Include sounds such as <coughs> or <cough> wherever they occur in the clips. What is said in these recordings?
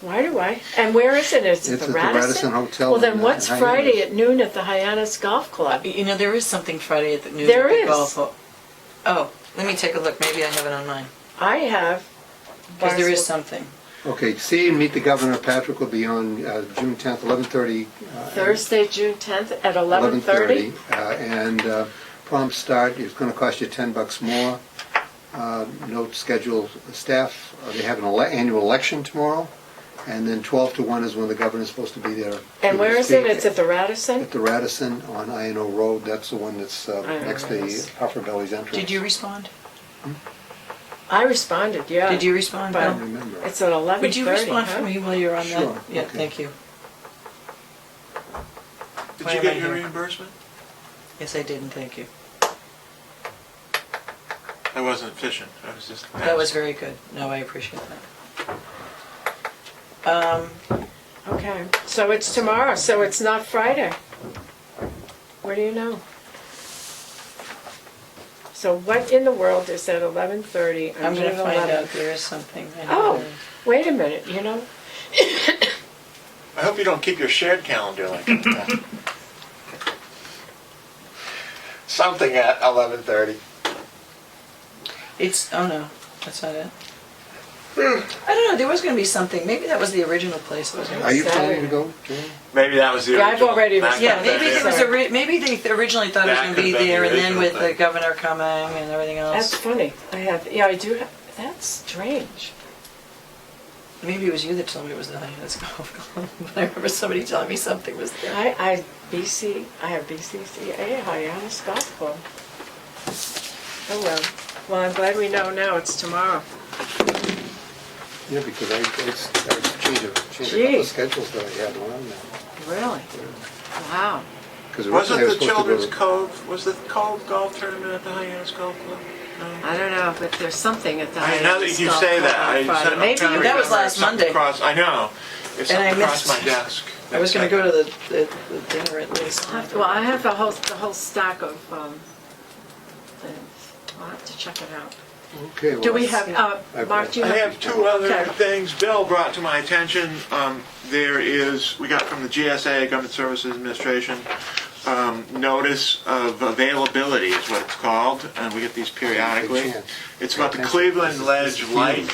Why do I? And where is it? Is it It's the at the Radisson? Radisson Hotel Well, in, then uh, what's Hyannis. Friday at noon at the Hyannis Golf Club? You know, there is something Friday at the news. There at the is. Golf. hall. Oh, let me take a look. Maybe I have it on mine. I have. Because there is Barnstable- something. Okay, see and meet the governor, Patrick will be on uh, June 10th, 11:30. uh, Thursday, June 10th at 11:30. 11:30, uh, And uh, prompt start is going to cost you 10 bucks more. Uh, Note schedule staff, uh, they have an ele- annual election tomorrow, and then 12 to 1 is when the governor's supposed to be there. And where is it? Speak It's at the Radisson? At the Radisson on INO Road, that's the one that's uh, INO next to Road. Huffer Belly's entrance. Did you respond? I responded, yeah. Did you respond? I But- don't Bill? remember. It's at 11:30. Would you respond huh? for me while you're on Sure, that? Yeah, okay. thank you. Did Why you am get I your here? reimbursement? Yes, I did, and thank you. I wasn't efficient, I was just. That was very good. No, I appreciate that. Um, Okay, so it's tomorrow, so it's not Friday. What do you know? So what in the world is at 11:30 I'm on June gonna find 11th? out. There is something. I know Oh, there is. wait a minute, you <coughs> know, I hope you don't keep your shared calendar like <laughs> that. Something at eleven thirty. It's, oh no, that's not it. I don't know, there was gonna be something. Maybe that was the original place. that was gonna Are you planning to go, Joanne? Maybe that was the Yeah, original. I've already That Yeah, could've maybe been it was, ori- maybe they originally thought it was That gonna be could've been there, the and then original with the thing. governor coming and everything that's else. funny. I have, yeah, I do, have- that's strange. Maybe it was you that told me it was the <laughs> Hyannis Golf Club, but I remember somebody telling me something was there. I, I, BC, I have BCCA, Hyannis Golf Club. Oh, well, well, I'm glad we know now, it's tomorrow. Yeah, because I, I s- I changed a, changed a couple Gee. of schedules that I had on now. Really? Wow. Because Wasn't originally I was supposed to the go Children's to- Cove, was the Cove Golf Tournament at the Hyannis Golf Club? No. I don't know, but there's something at the I know Hyannis that you Golf say Club that, on I. Friday. Maybe you- That was last Monday. Cross, I know. It's And I something crossed my missed- desk. I was gonna go to the, the the dinner at least. Well, I have the whole, the whole stack of, um, things. I'll have to check it out. Okay, well, Do we that's- have, uh, I've- Mark, do you I have? have two other Okay. things Bill brought to my attention. Um, There is, we got from the GSA, Government Services Administration, um, notice of availability is what it's called, and we get these periodically. chance. It's about the Attention. Cleveland This Ledge is Light, huge.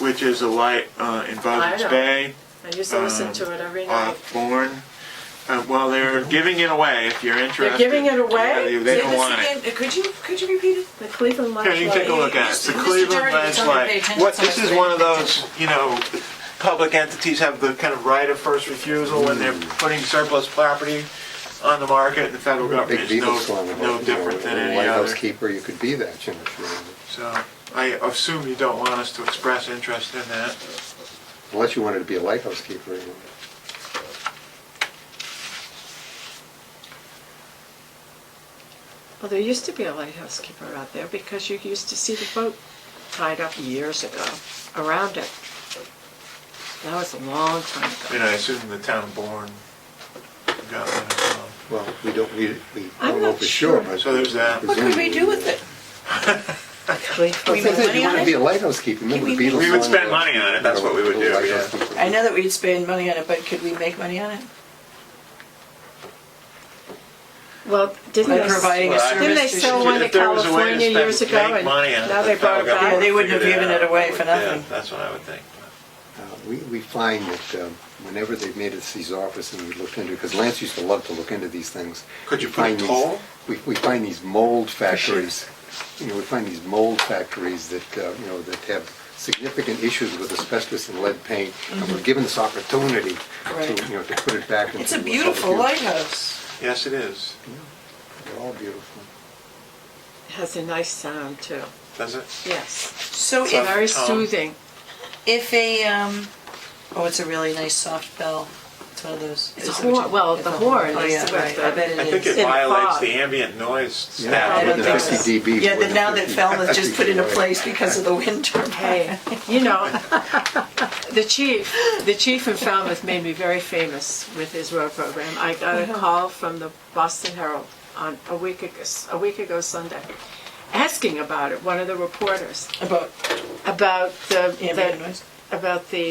which is a light uh, in Buzzards know. Bay I used to Um, listen to it every night. off Bourne. Uh, Well, they're giving it away if you're interested. giving it away? Yeah, they- They don't want it. Uh, Could you, could you repeat it? The Cleveland Ledge. Here, you can take a look at it. It's the Mr. Cleveland Doherty was Ledge on the Light. page, and What, so this it's is the- one of those, you know, public entities have the kind of right of first refusal when they're Hmm. putting surplus property on the market, and the federal Big government is Beatles song no, about, no you different know, than a any lighthouse other. keeper, you could be that, you know. if you wanted. So I assume you don't want us to express interest in that. Unless you wanted to be a lighthouse keeper. you know. Well, there used to be a lighthouse keeper out there because you used to see the boat tied up years ago around it. That was a long time And ago. I assume the town of Bourne got one as well. Well, we don't, we, we I'm don't know not for sure, sure. but. So there's that. What could we do with it? Well, We make sometimes money you on want to it? be a lighthouse keeper, remember We- the Beatles? we would song spend about, money on it, that's what we would you know, do, lighthouse yeah. keeper? I know that we'd spend money on it, but could we make money on it? Well, didn't By they, providing a Well, I- didn't they service to. sell one to If there was a way to California spend- years ago make and money on it, now the they brought it back? federal government Yeah, they wouldn't have figured given it out. away for Yeah, nothing. That's what I would think. Uh, We, we find that um, whenever they've made us these offers and we looked into, because Lance used to love to look into these things. Could you we find put a these- toll? We, we find these mold factories, you know, we find these mold factories that, uh, you know, that have significant issues with asbestos and lead paint. And we're given this opportunity to, Mm-hmm. Right. you know, to put it back into. It's a public beautiful use. lighthouse. Yes, it is. They're all beautiful. Has a nice sound too. Does it? Yes, So So- if, very um, soothing. if a, um, oh, it's a really nice soft bell. It's one of those. It's a is it what horn- you- well, it's the a horn Oh, is yeah, what right. the- I bet it is. I think it In violates fog. the ambient noise Yeah, standard. I don't within think 50 dB, so. Yeah, within that now that 50 Falmouth just put into right. place because of the wind turbine. Hey, you know, the chief, the chief in Falmouth made me very famous with his road program. I got a call from the Boston Herald on a week ago, a week ago Sunday, asking about it. One of the reporters <laughs> About about the, ambient the noise. about the